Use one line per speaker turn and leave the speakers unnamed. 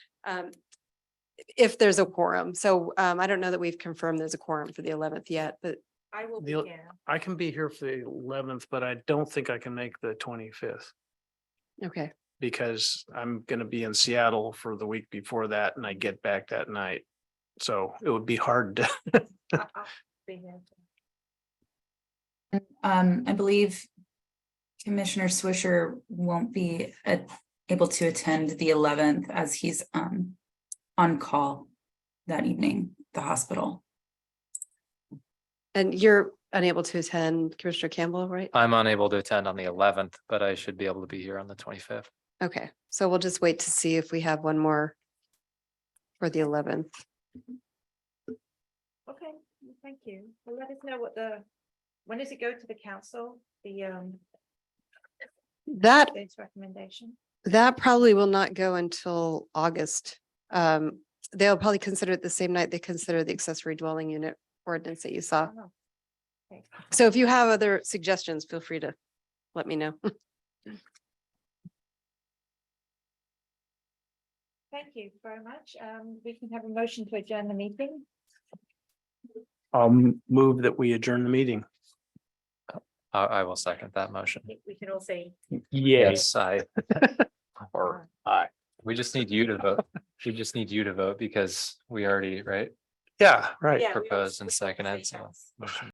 um, if there's a quorum. So um, I don't know that we've confirmed there's a quorum for the eleventh yet, but
I will
The- I can be here for the eleventh, but I don't think I can make the twenty-fifth
okay.
because I'm gonna be in Seattle for the week before that and I get back that night. So it would be hard to,
Um, I believe Commissioner Swisher won't be uh, able to attend the eleventh as he's um on call that evening, at the hospital.
And you're unable to attend Commissioner Campbell, right?
I'm unable to attend on the eleventh, but I should be able to be here on the twenty-fifth.
Okay, so we'll just wait to see if we have one more for the eleventh.
Okay, well, thank you. Well, let us know what the, when does it go to the council, the um,
That
its recommendation?
That probably will not go until August. Um, they'll probably consider it the same night they consider the accessory dwelling unit ordinance that you
Uh,
saw.
Oh, okay.
So if you have other suggestions, feel free to let me know.
Thank you very much. Um, we can have a motion to adjourn the meeting.
um, move that we adjourn the meeting.
I, I will second that motion.
I think We can all say.
Yes, I. Or
Aye.
We just need you to vote. We just need you to vote because we already, right?
Yeah, right.
Uh, Yeah, we all-
Proposed and
we can all say
seconded, so-
yes.
Motion